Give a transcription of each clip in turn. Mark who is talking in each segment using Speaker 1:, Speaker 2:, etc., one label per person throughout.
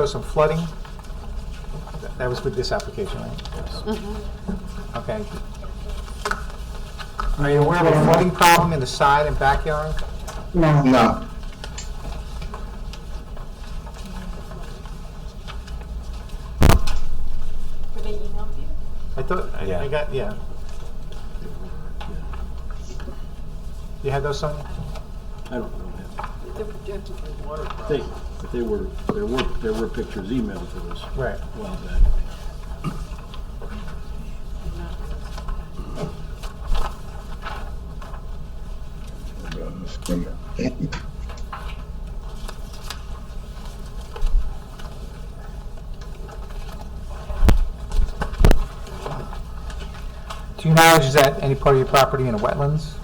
Speaker 1: There's some flooding. Th- That was with this application, right? Okay. Are you aware of a flooding problem in the side and backyard?
Speaker 2: No,
Speaker 3: No.
Speaker 4: Did they email you?
Speaker 1: I thought, I-
Speaker 5: Yeah.
Speaker 1: I got, yeah. You had those, Sonia?
Speaker 6: I don't know. man.
Speaker 4: They're projected for water
Speaker 6: I think that they were, there were, there were pictures emailed to us a
Speaker 1: Right.
Speaker 6: while back.
Speaker 1: To your knowledge, is that any part of your property in wetlands?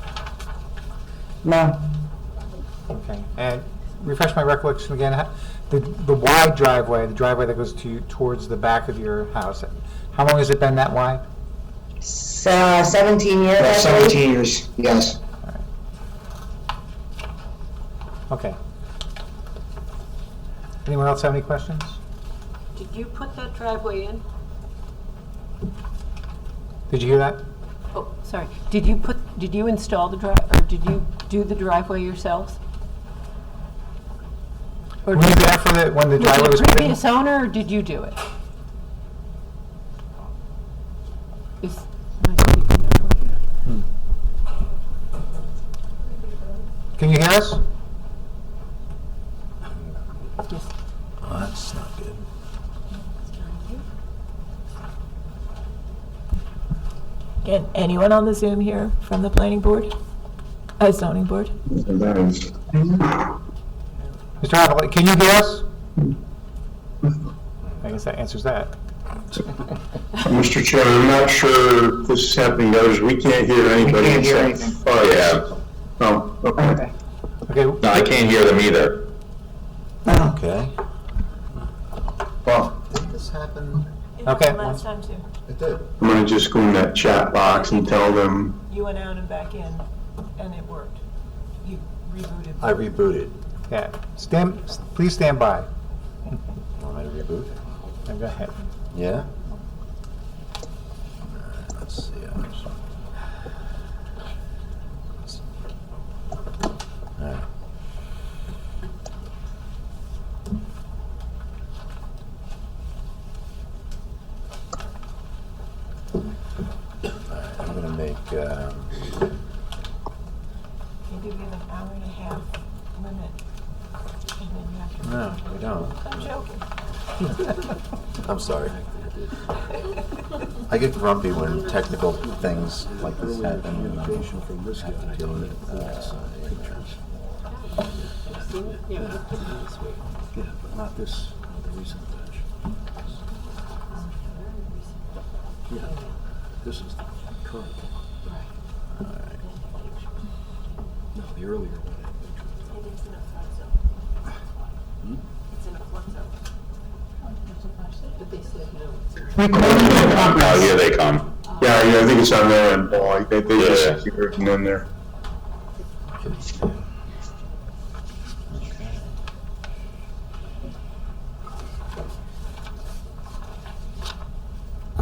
Speaker 2: no,
Speaker 1: Okay, and refresh my recollection again, ha- the, the wide driveway, the driveway that goes to, towards the back of your house, how long has it been that wide?
Speaker 2: S- uh, seventeen years. I believe.
Speaker 3: Seventeen years, yes.
Speaker 1: Okay. Anyone else have any questions?
Speaker 4: Did you put that driveway in?
Speaker 1: Did you hear that?
Speaker 4: Oh, sorry. Did you put, did you install the drive, or did you do the driveway yourselves? Or
Speaker 1: Were you
Speaker 4: did
Speaker 1: there for the, when the driveway was
Speaker 4: was the
Speaker 1: put in?
Speaker 4: previous owner, or did you do it? Is, my computer not working?
Speaker 1: Can you hear us?
Speaker 4: Yes.
Speaker 5: Oh, that's not good.
Speaker 7: Can anyone on the Zoom here from the planning board? Uh, zoning board?
Speaker 1: Mr. Havel, can you hear us? I guess that answers that.
Speaker 8: Mr. Chair, I'm not sure if this is happening to others. We can't hear anybody.
Speaker 3: We can't hear
Speaker 8: except-
Speaker 3: anything.
Speaker 8: Oh, yeah. Oh, okay.
Speaker 1: Okay,
Speaker 8: No, I can't hear them either.
Speaker 5: Okay.
Speaker 3: Well,
Speaker 9: This happened,
Speaker 1: okay.
Speaker 7: Last time too.
Speaker 9: it did.
Speaker 8: I'm gonna just go in that chat box and tell them,
Speaker 7: You went out and back in and it worked. You rebooted.
Speaker 5: I rebooted.
Speaker 1: Yeah, stand, s- please stand by.
Speaker 5: Want me to reboot?
Speaker 1: Now Go ahead.
Speaker 5: Yeah? Let's see. I'm just- Alright. Alright, I'm gonna make, uh,
Speaker 7: You do give an hour and a half limit. and then you have to-
Speaker 5: no, we don't.
Speaker 7: I'm joking.
Speaker 5: I'm sorry. I get grumpy when technical things like this happen. and I have to deal with it. Uh,
Speaker 6: Yeah, but not this, not the recent batch. Yeah, this is the current one. No, the earlier one. had pictures.
Speaker 8: oh, here they come.
Speaker 3: yeah, yeah, I think it's on their end, Paul. Like, They, they just hear it and then they're.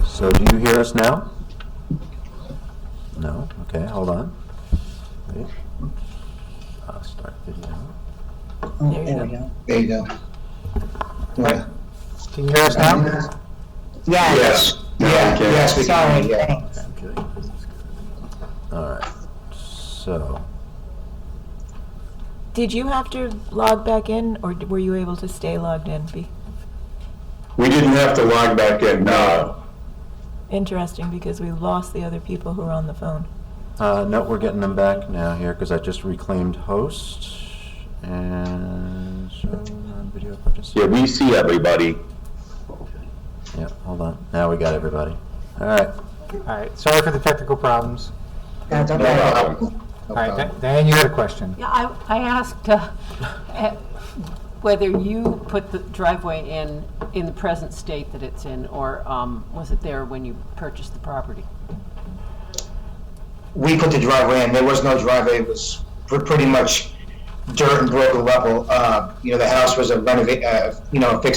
Speaker 5: So do you hear us now? No? Okay, hold on. Wait. I'll start video.
Speaker 2: Oh, there we go.
Speaker 3: There you go. Yeah.
Speaker 1: Can you hear us now?
Speaker 2: Yes,
Speaker 3: Yes, yeah,
Speaker 8: okay.
Speaker 3: yes, we
Speaker 2: sorry,
Speaker 3: can, yeah.
Speaker 2: thanks.
Speaker 6: Okay, this is good.
Speaker 5: All right. So,
Speaker 7: Did you have to log back in or d- were you able to stay logged in? Be
Speaker 8: We didn't have to log back in, no.
Speaker 7: interesting because we lost the other people who were on the phone.
Speaker 5: uh, no, we're getting them back now here because I just reclaimed host and show on video participant.
Speaker 8: Yeah, we see everybody.
Speaker 5: Yeah, hold on. Now we got everybody. All right.
Speaker 1: All right, sorry for the technical problems.
Speaker 2: That's
Speaker 3: No
Speaker 2: okay.
Speaker 8: Um,
Speaker 3: problem. No
Speaker 1: All right,
Speaker 3: problem.
Speaker 1: Dan- Diane, you had a question.
Speaker 4: Yeah, I, I asked uh, eh, whether you put the driveway in, in the present state that it's in, or um, was it there when you purchased the property?
Speaker 3: We put the driveway in, there was no driveway, it was pr- pretty much dirt and broken level. Uh, you know, the house was a renovate, uh, you know, fix